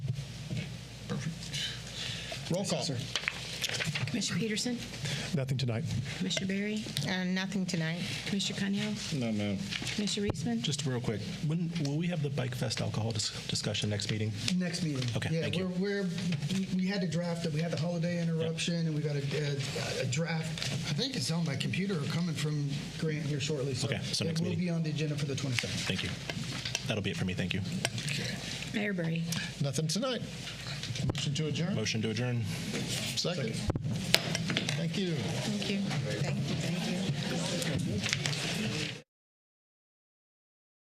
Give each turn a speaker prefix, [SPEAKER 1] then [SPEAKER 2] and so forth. [SPEAKER 1] Roll call.
[SPEAKER 2] Commissioner Peterson?
[SPEAKER 3] Nothing tonight.
[SPEAKER 2] Commissioner Berry?
[SPEAKER 4] Uh, Nothing tonight.
[SPEAKER 2] Commissioner Cunnell?
[SPEAKER 1] No, ma'am.
[SPEAKER 2] Commissioner Reisman?
[SPEAKER 5] Just real quick, when, will we have the Bike Fest alcohol dis- discussion next meeting?
[SPEAKER 6] Next meeting.
[SPEAKER 5] Okay,
[SPEAKER 6] Yeah,
[SPEAKER 5] thank you.
[SPEAKER 6] we're, we're we- we had to draft it. We had the holiday interruption, and we got a, a, a draft. I think it's on my computer or coming from Grant here shortly. So
[SPEAKER 5] Okay, so
[SPEAKER 6] it
[SPEAKER 5] next
[SPEAKER 6] will
[SPEAKER 5] meeting.
[SPEAKER 6] be on the agenda for the 22nd.
[SPEAKER 5] Thank you. That'll be it for me, thank you.
[SPEAKER 2] Mayor Berry?
[SPEAKER 1] Nothing tonight. Motion to adjourn?
[SPEAKER 5] Motion to adjourn.
[SPEAKER 1] Second. Thank you.
[SPEAKER 4] Thank you. Thank you. Thank you.